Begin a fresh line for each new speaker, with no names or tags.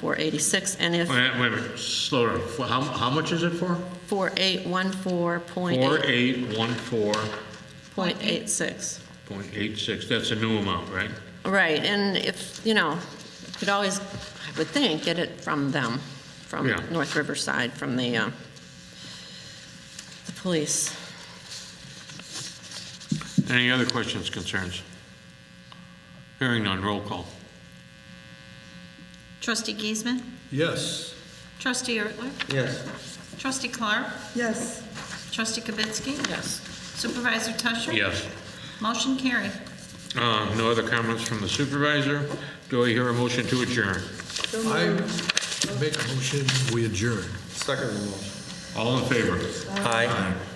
81486, and if
Wait, wait, wait, slow down. For How, how much is it for?
4814.86.
4814.86. That's a new amount, right?
Right, and if, you know, you could always, I would think, get it from them, from
Yeah.
North Riverside, from the, uh, the police.
Any other questions, concerns? Hearing none, roll call.
Trustee Giesman?
Yes.
Trustee Ertler?
Yes.
Trustee Clark?
yes,
Trustee Kibitsky? Yes. Supervisor Tusher?
Yes.
Motion carried.
Uh, No other comments from the supervisor? Do I hear a motion to adjourn?
I make a motion, we adjourn. Second motion.
All in favor?
Aye.